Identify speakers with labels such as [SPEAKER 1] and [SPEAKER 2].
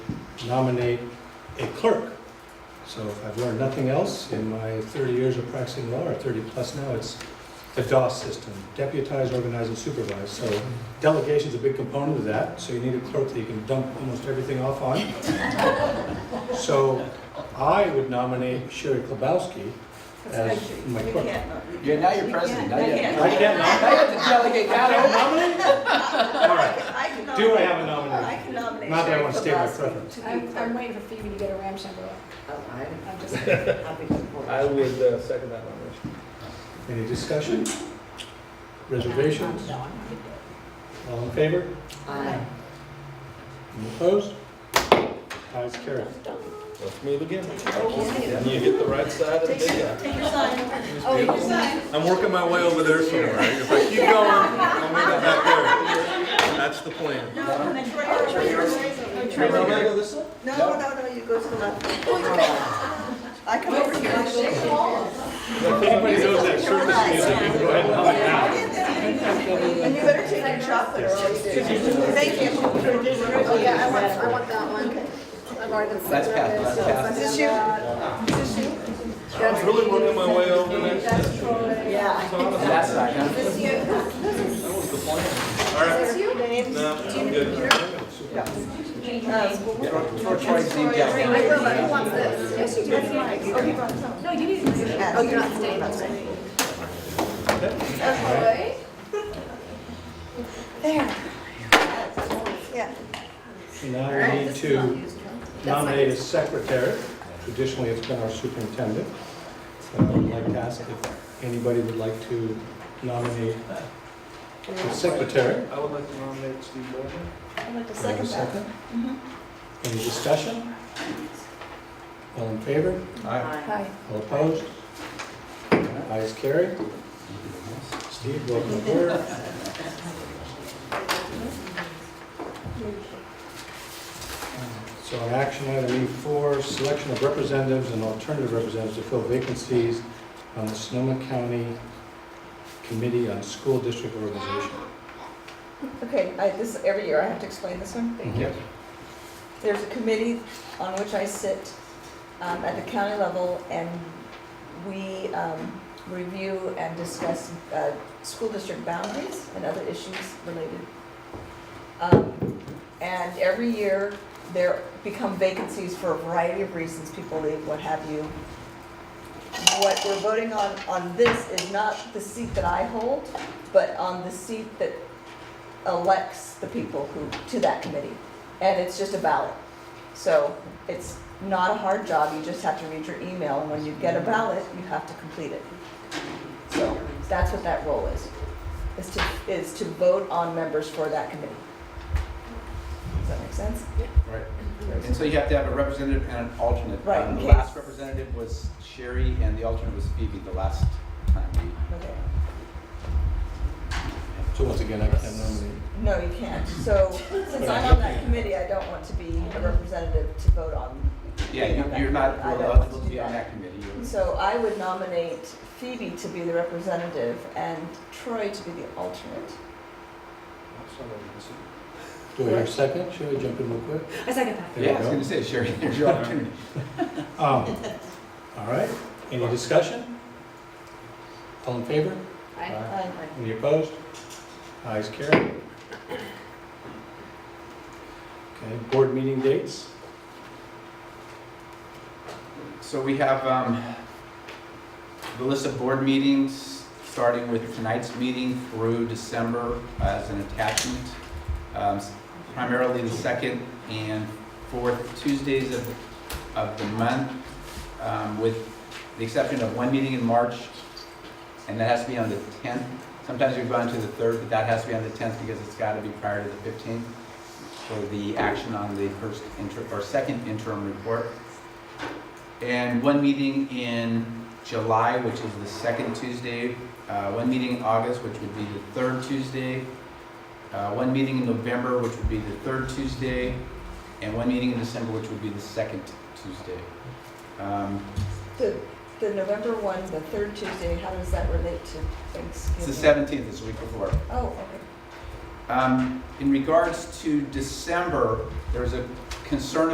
[SPEAKER 1] nominate a clerk. So if I've learned nothing else in my 30 years of practicing law, or 30-plus now, it's the DOS system, deputize, organize, and supervise. So delegation's a big component of that, so you need a clerk that you can dump almost everything off on. So I would nominate Sherry Klobowski as
[SPEAKER 2] That's country.
[SPEAKER 1] my
[SPEAKER 2] We
[SPEAKER 1] clerk.
[SPEAKER 2] can't vote.
[SPEAKER 3] You're now your president. Now you have
[SPEAKER 2] can't.
[SPEAKER 3] to-
[SPEAKER 1] I can't nom-
[SPEAKER 3] now you have to delegate that over.
[SPEAKER 1] All right,
[SPEAKER 2] I can
[SPEAKER 1] do I
[SPEAKER 2] nominate,
[SPEAKER 1] have a
[SPEAKER 2] I
[SPEAKER 1] nomination?
[SPEAKER 2] can nominate
[SPEAKER 1] Not that I want to state my
[SPEAKER 2] Sherry
[SPEAKER 1] preference.
[SPEAKER 2] Kowalski to be
[SPEAKER 4] I'm, I'm
[SPEAKER 2] clerk.
[SPEAKER 4] waiting for Phoebe to get her Ram somewhere. I'm just,
[SPEAKER 5] I would uh, second that nomination.
[SPEAKER 1] Any discussion? Reservations?
[SPEAKER 4] No, I'm not gonna do
[SPEAKER 1] All in favor? Any opposed? Ayes, carried.
[SPEAKER 5] Let's move again.
[SPEAKER 2] Oh,
[SPEAKER 5] And you hit the right side of the
[SPEAKER 2] Take
[SPEAKER 5] big
[SPEAKER 2] your,
[SPEAKER 5] guy.
[SPEAKER 2] take your sign.
[SPEAKER 4] it. Oh, you decide.
[SPEAKER 6] I'm working my way over there somewhere. If I keep going, I'll make it back there. That's the plan.
[SPEAKER 2] No, no, no, no,
[SPEAKER 5] Am I gonna go this way?
[SPEAKER 2] no, Oh, no, no, you go to the left. I come over here.
[SPEAKER 1] If anybody knows that circus music, you can go ahead and hum it now.
[SPEAKER 2] And you better take your chocolate or else you do. Thank you. Oh, yeah, I want, I want that one. I've already been.
[SPEAKER 3] That's Pat, that's Pat.
[SPEAKER 2] Is this you? Is this you?
[SPEAKER 5] I'm really working my way over there.
[SPEAKER 2] Yeah.
[SPEAKER 3] That's not gonna-
[SPEAKER 2] Is this you?
[SPEAKER 6] All right.
[SPEAKER 2] Is this you? Names?
[SPEAKER 5] No, I'm good.
[SPEAKER 2] Uh,
[SPEAKER 3] Torch right, Z down.
[SPEAKER 4] No, you need to.
[SPEAKER 2] Oh, you're not staying, that's right. Yeah.
[SPEAKER 1] So Now we need to nominate a secretary. Traditionally, it's been our superintendent. So I would like to ask if anybody would like to nominate a secretary.
[SPEAKER 5] I would like to nominate Steve Morgan.
[SPEAKER 2] I'd like to
[SPEAKER 1] Do I have a
[SPEAKER 2] second that. Mm-hmm.
[SPEAKER 1] Any discussion? All in favor?
[SPEAKER 4] Hi.
[SPEAKER 1] All opposed? Ayes carried. Steve, welcome aboard. So on action item E4, selection of representatives and alternative representatives to fill vacancies on the Sonoma County Committee on School District Organization.
[SPEAKER 2] Okay, I, this, every year I have to explain this one?
[SPEAKER 1] Thank you.
[SPEAKER 2] There's a committee on which I sit um, at the county level, and we um, review and discuss uh, school district boundaries and other issues related. Um, And every year, there become vacancies for a variety of reasons, people leave, what have you. What we're voting on, on this is not the seat that I hold, but on the seat that elects the people who, to that committee and it's just a ballot. So it's not a hard job, you just have to read your email, and when you get a ballot, you have to complete it. So that's what that role is, is to, is to vote on members for that committee. Does that make sense?
[SPEAKER 3] Right. And so you have to have a representative and an alternate.
[SPEAKER 2] Right,
[SPEAKER 3] Um, The
[SPEAKER 2] in
[SPEAKER 3] last
[SPEAKER 2] case.
[SPEAKER 3] representative was Sherry and the alternate was Phoebe the last time we.
[SPEAKER 2] Okay.
[SPEAKER 1] So once again, I can nominate.
[SPEAKER 2] No, you can't. So since I'm on that committee, I don't want to be a representative to vote on.
[SPEAKER 3] Yeah, you- you're not
[SPEAKER 2] I don't
[SPEAKER 3] eligible
[SPEAKER 2] want
[SPEAKER 3] to
[SPEAKER 2] to
[SPEAKER 3] be
[SPEAKER 2] do
[SPEAKER 3] on
[SPEAKER 2] that.
[SPEAKER 3] that committee. You're-
[SPEAKER 2] So I would nominate Phoebe to be the representative and Troy to be the alternate.
[SPEAKER 1] Do I hear a second? Should I jump in real quick?
[SPEAKER 4] I second that.
[SPEAKER 1] There you
[SPEAKER 3] Yeah, I was
[SPEAKER 1] go.
[SPEAKER 3] gonna say, Sherry, there's your opportunity.
[SPEAKER 1] Um, All right, any discussion? All in favor?
[SPEAKER 4] Hi.
[SPEAKER 2] Aye.
[SPEAKER 1] Any opposed? Ayes carried. Okay, board meeting dates.
[SPEAKER 3] So we have um, the list of board meetings, starting with tonight's meeting through December as an attachment. Um, s- Primarily the second and fourth Tuesdays of, of the month, um, with the exception of one meeting in March, and that has to be on the 10th. Sometimes we've gone to the 3rd, but that has to be on the 10th because it's got to be prior to the 15th for the action on the first inter, or second interim report and one meeting in July, which is the second Tuesday, uh, one meeting in August, which would be the third Tuesday, uh, one meeting in November, which would be the third Tuesday, and one meeting in December, which would be the second Tuesday. Um,
[SPEAKER 2] The, the November one, the third Tuesday, how does that relate to
[SPEAKER 3] It's
[SPEAKER 2] Thanksgiving?
[SPEAKER 3] the 17th, it's the week before.
[SPEAKER 2] Oh, okay.
[SPEAKER 3] Um, In regards to December, there's a concern